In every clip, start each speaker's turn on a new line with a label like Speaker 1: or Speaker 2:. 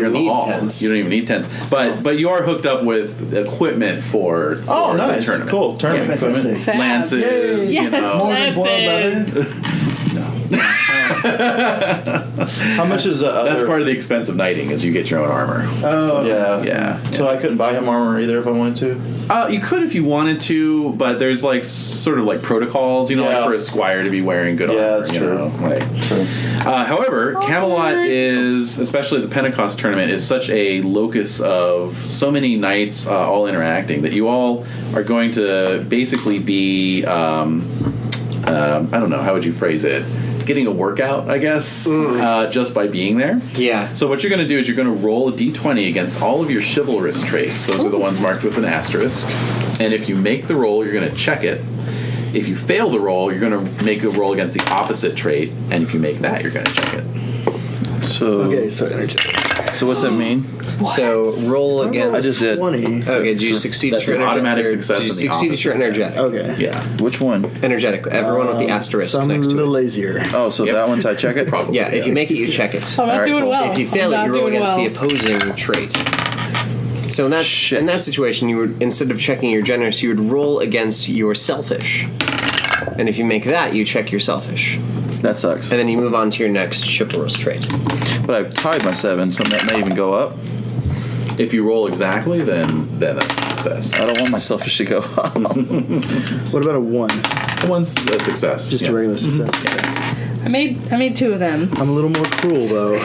Speaker 1: don't
Speaker 2: You're in the
Speaker 1: Oh, need
Speaker 2: hall.
Speaker 1: tents.
Speaker 2: You don't even need tents, but but you are hooked up with equipment for, for
Speaker 1: Oh, nice.
Speaker 2: the tournament.
Speaker 1: Cool. Tournament
Speaker 2: Yeah,
Speaker 1: equipment.
Speaker 3: Fantastic.
Speaker 4: Fab.
Speaker 2: lances.
Speaker 4: Yes,
Speaker 2: You know,
Speaker 3: than boiled
Speaker 4: that's it.
Speaker 1: How much is uh,
Speaker 2: that's part of the expense of knighting is you get your own armor.
Speaker 1: Oh, yeah,
Speaker 2: yeah.
Speaker 1: So I couldn't buy him armor either if I wanted to.
Speaker 2: Uh, you could if you wanted to, but there's like sort of like protocols, you know,
Speaker 1: Yeah.
Speaker 2: like for a squire to be wearing good
Speaker 1: Yeah,
Speaker 2: armor.
Speaker 1: that's
Speaker 2: you
Speaker 1: true.
Speaker 2: know, like-
Speaker 1: True.
Speaker 2: Uh,
Speaker 4: Oh,
Speaker 2: however, Camelot
Speaker 4: Alright.
Speaker 2: is, especially the Pentecost tournament, is such a locus of so many knights uh, all interacting that you all are going to basically be, um, um, I don't know, how would you phrase it? Getting a workout, I guess,
Speaker 5: Mm.
Speaker 2: uh, just by being there.
Speaker 1: Yeah.
Speaker 2: So what you're going to do is you're going to roll a d20 against all of your chivalrous traits. Those are the ones marked with an asterisk. And if you make the roll, you're going to check it. If you fail the roll, you're going to make the roll against the opposite trait, and if you make that, you're going to check it.
Speaker 6: So
Speaker 3: Okay, so energy.
Speaker 6: so what's that mean?
Speaker 5: So roll against.
Speaker 6: I just did.
Speaker 3: Twenty.
Speaker 5: Okay, do you succeed?
Speaker 2: That's
Speaker 5: at your
Speaker 2: an automatic
Speaker 5: energetic-
Speaker 2: success
Speaker 5: Do you
Speaker 2: in the
Speaker 5: succeed at
Speaker 2: opposite.
Speaker 5: your energetic?
Speaker 3: Okay.
Speaker 2: Yeah,
Speaker 6: Which one?
Speaker 5: Energetic. Everyone with the asterisk
Speaker 3: So I'm
Speaker 5: next
Speaker 3: a
Speaker 5: to
Speaker 3: little
Speaker 5: it.
Speaker 3: lazier.
Speaker 6: Oh, so
Speaker 2: Yep.
Speaker 6: that one I check it.
Speaker 2: probably.
Speaker 5: Yeah, if you make it, you check it.
Speaker 4: I'm not
Speaker 6: Alright,
Speaker 4: doing
Speaker 6: cool.
Speaker 4: well.
Speaker 5: If you
Speaker 4: I'm
Speaker 5: fail it,
Speaker 4: not
Speaker 5: you roll
Speaker 4: doing
Speaker 5: against
Speaker 4: well.
Speaker 5: the opposing trait. So in that
Speaker 6: Shit.
Speaker 5: in that situation, you would instead of checking your generous, you would roll against your selfish. And if you make that, you check your selfish, and
Speaker 6: That sucks.
Speaker 5: then you move on to your next chivalrous trait.
Speaker 6: But I've tied my seven, so that may even go up.
Speaker 2: If you roll exactly, then then that's a success.
Speaker 6: I don't want my selfish to go up.
Speaker 3: What about a one?
Speaker 2: One's a success.
Speaker 3: Just
Speaker 2: yeah.
Speaker 3: a regular success.
Speaker 4: I made I made two of them.
Speaker 3: I'm a little more cruel though.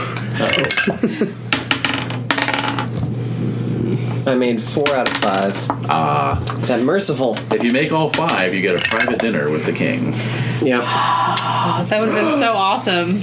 Speaker 5: I made four out of five. Ah, that merciful.
Speaker 2: If you make all five, you get a private dinner with the king.
Speaker 5: Yeah.
Speaker 4: Oh, that would have been so awesome.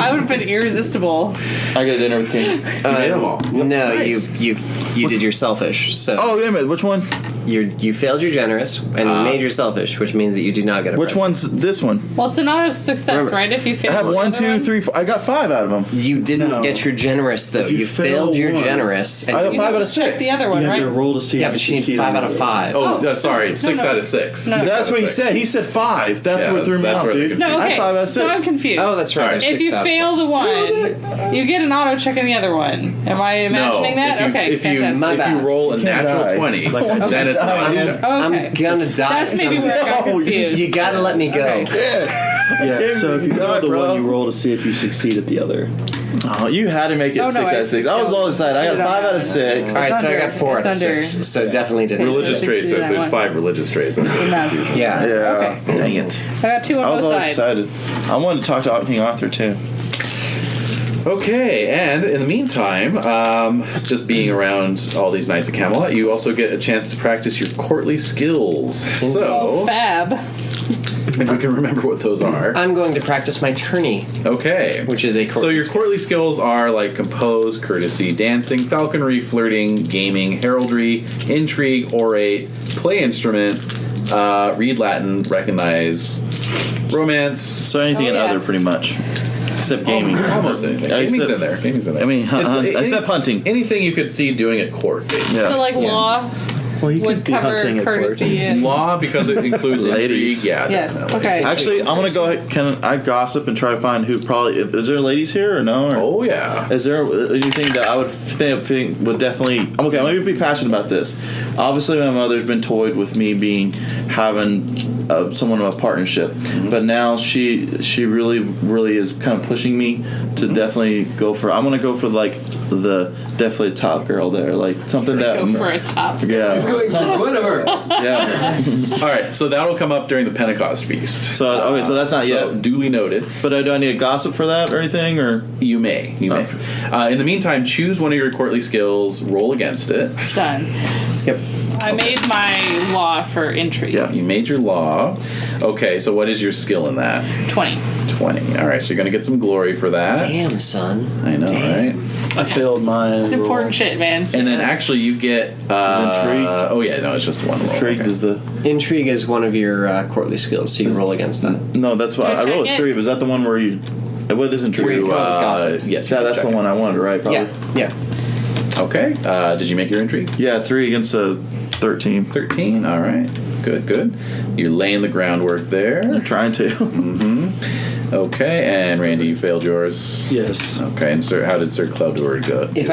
Speaker 4: I would have been irresistible.
Speaker 6: I get dinner with King.
Speaker 2: You made them all.
Speaker 5: No, you you you did your selfish. So
Speaker 6: Oh, wait a minute. Which one?
Speaker 5: you you failed your generous and you made your selfish, which means that you did not get a
Speaker 6: Which
Speaker 5: present.
Speaker 6: one's this one?
Speaker 4: Well, it's not a success,
Speaker 5: Remember,
Speaker 4: right? If you fail,
Speaker 6: I have
Speaker 4: the
Speaker 6: one,
Speaker 4: other
Speaker 6: two, three, four. I got five out of them.
Speaker 5: You didn't
Speaker 3: No.
Speaker 5: get your generous though.
Speaker 3: If
Speaker 5: You,
Speaker 3: you fail
Speaker 5: failed your
Speaker 3: one-
Speaker 5: generous. And
Speaker 6: I got
Speaker 4: You have
Speaker 6: five out
Speaker 4: to
Speaker 6: of
Speaker 4: check
Speaker 6: six.
Speaker 4: the other one,
Speaker 3: you have
Speaker 4: right?
Speaker 3: to roll to see.
Speaker 5: yeah,
Speaker 3: if
Speaker 5: but
Speaker 3: you
Speaker 5: she needs
Speaker 3: succeed
Speaker 5: five
Speaker 3: or
Speaker 5: out
Speaker 3: not.
Speaker 5: of five.
Speaker 2: Oh,
Speaker 4: no,
Speaker 2: no, sorry,
Speaker 4: no,
Speaker 2: six
Speaker 4: no.
Speaker 2: out of six.
Speaker 4: No.
Speaker 6: That's what he said. He said five. That's
Speaker 2: Yeah,
Speaker 6: what threw me
Speaker 2: that's
Speaker 6: out,
Speaker 2: where the
Speaker 6: dude.
Speaker 2: confusion-
Speaker 4: No,
Speaker 6: I
Speaker 4: okay.
Speaker 6: have five out of
Speaker 4: So I'm
Speaker 6: six.
Speaker 4: confused.
Speaker 5: Oh, that's right.
Speaker 2: Alright.
Speaker 5: there's
Speaker 4: If
Speaker 5: six
Speaker 4: you
Speaker 5: out of
Speaker 4: fail
Speaker 5: six.
Speaker 4: the one, you get an auto check in the other one. Am I imagining that?
Speaker 2: If you,
Speaker 4: okay,
Speaker 2: if You,
Speaker 4: fantastic.
Speaker 5: My
Speaker 2: if you
Speaker 5: bad.
Speaker 2: roll a
Speaker 6: can't
Speaker 2: natural
Speaker 6: die.
Speaker 2: 20,
Speaker 1: Like, I
Speaker 2: then it's
Speaker 1: can't die.
Speaker 2: not a-
Speaker 4: okay.
Speaker 5: I'm gonna die.
Speaker 4: That's maybe where I got
Speaker 6: No, you-
Speaker 4: confused.
Speaker 5: You gotta let me go.
Speaker 4: Okay.
Speaker 3: Yeah. So if you
Speaker 6: God,
Speaker 3: fail the
Speaker 6: bro.
Speaker 3: one, you roll to see if you succeed at the other.
Speaker 6: Oh, you had to make it
Speaker 4: Oh, no,
Speaker 6: six
Speaker 4: I
Speaker 6: out of six. I was all excited. I got
Speaker 4: succeeded on
Speaker 6: five
Speaker 4: that
Speaker 6: out of
Speaker 4: one.
Speaker 6: six.
Speaker 5: All right, so I
Speaker 4: under.
Speaker 5: got four
Speaker 4: It's
Speaker 5: out of
Speaker 4: under.
Speaker 5: six. So definitely didn't.
Speaker 2: religious
Speaker 4: Six
Speaker 2: traits.
Speaker 4: is that
Speaker 2: There's
Speaker 4: one.
Speaker 2: five religious traits.
Speaker 4: I'm not succeeding.
Speaker 5: Yeah.
Speaker 6: Yeah.
Speaker 4: Okay.
Speaker 6: Dang it.
Speaker 4: I got two on
Speaker 6: I was
Speaker 4: both
Speaker 6: all
Speaker 4: sides.
Speaker 6: excited. I wanted to talk to King Arthur too.
Speaker 2: Okay, and in the meantime, um, just being around all these knights of Camelot, you also get a chance to practice your courtly skills.
Speaker 4: Oh,
Speaker 2: So,
Speaker 4: fab.
Speaker 2: if we can remember what those are.
Speaker 5: I'm going to practice my tourney,
Speaker 2: Okay.
Speaker 5: Uh, which is a
Speaker 2: So your
Speaker 5: court.
Speaker 2: courtly skills are like compose, courtesy, dancing, falconry, flirting, gaming, heraldry, intrigue, orate, play instrument, uh, read Latin, recognize, romance,
Speaker 6: So anything
Speaker 4: Oh,
Speaker 6: and
Speaker 4: yeah. Oh,
Speaker 6: other, pretty much, except gaming.
Speaker 2: almost anything.
Speaker 6: I
Speaker 2: Gaming's
Speaker 6: said-
Speaker 2: in there. Gaming's in there.
Speaker 6: I mean, hun-
Speaker 2: It's-
Speaker 6: hun-
Speaker 2: any-
Speaker 6: except hunting.
Speaker 2: Anything you could see doing at court. basically.
Speaker 6: Yeah.
Speaker 4: So like law
Speaker 3: Well, you
Speaker 4: would
Speaker 3: could be
Speaker 4: cover
Speaker 3: hunting at
Speaker 4: courtesy and
Speaker 2: Law because it includes
Speaker 6: Ladies.
Speaker 2: intrigue. Yeah.
Speaker 4: yes.
Speaker 2: definitely.
Speaker 4: Okay.
Speaker 6: Actually, I'm gonna go. ahead Can I gossip and try to find who probably is there? Ladies here or no? Or
Speaker 2: Oh yeah.
Speaker 6: Is there anything that I would think, think would definitely? I'm okay. I'm gonna be passionate about this. Obviously, my mother's been toyed with me being having uh, someone in a partnership,
Speaker 4: Mm-hmm.
Speaker 6: but now she she really really is kind of pushing me to
Speaker 4: Mm-hmm.
Speaker 6: definitely go for. I'm gonna go for like the definitely top girl there, like something that
Speaker 4: go for a top.
Speaker 6: yeah
Speaker 5: Son, whatever.
Speaker 6: yeah.
Speaker 2: All right. So that'll come up during the Pentecost feast.
Speaker 6: So uh, okay, so that's not
Speaker 2: So
Speaker 6: yet.
Speaker 2: duly noted.
Speaker 6: But uh, do I need to gossip for that or anything or?
Speaker 2: You may. You may. Uh, in the meantime, choose one of your courtly skills. Roll against it.
Speaker 4: Done.
Speaker 5: Yep.
Speaker 4: I made my law for intrigue.
Speaker 6: Yeah.
Speaker 2: You made your law. Okay. So what is your skill in that?
Speaker 4: Twenty.
Speaker 2: Twenty. All right. So you're gonna get some glory for that.
Speaker 5: Damn, son.
Speaker 2: I know, right?
Speaker 3: I failed mine.
Speaker 4: It's important shit, man.
Speaker 2: And then actually, you get. Uh,
Speaker 6: intrigue-
Speaker 2: Oh yeah, no, it's just one roll.
Speaker 6: Intrigued
Speaker 2: Okay.
Speaker 6: is the
Speaker 5: Intrigue is one of your uh, courtly skills, so you can roll against that.
Speaker 6: no. That's why
Speaker 4: Can I
Speaker 6: I, rolled
Speaker 4: check
Speaker 6: a
Speaker 4: it?
Speaker 6: three. But is that the one where you? What is intrigue?
Speaker 5: Where you
Speaker 2: You, uh,
Speaker 5: Gossip.
Speaker 2: yes. you
Speaker 6: Yeah,
Speaker 2: can
Speaker 6: that's
Speaker 2: check
Speaker 6: the one I wanted, right? Probably.
Speaker 5: Yeah. Yeah.
Speaker 2: it. Okay. Uh, did you make your intrigue?
Speaker 6: Yeah, three against a Thirteen.
Speaker 2: 13. All right. Good, good. You're laying the groundwork there.
Speaker 6: I'm trying to.
Speaker 2: Okay, and Randy, you failed yours.
Speaker 3: Yes.
Speaker 2: Okay, and sir, how did Sir Cloudward go?
Speaker 5: If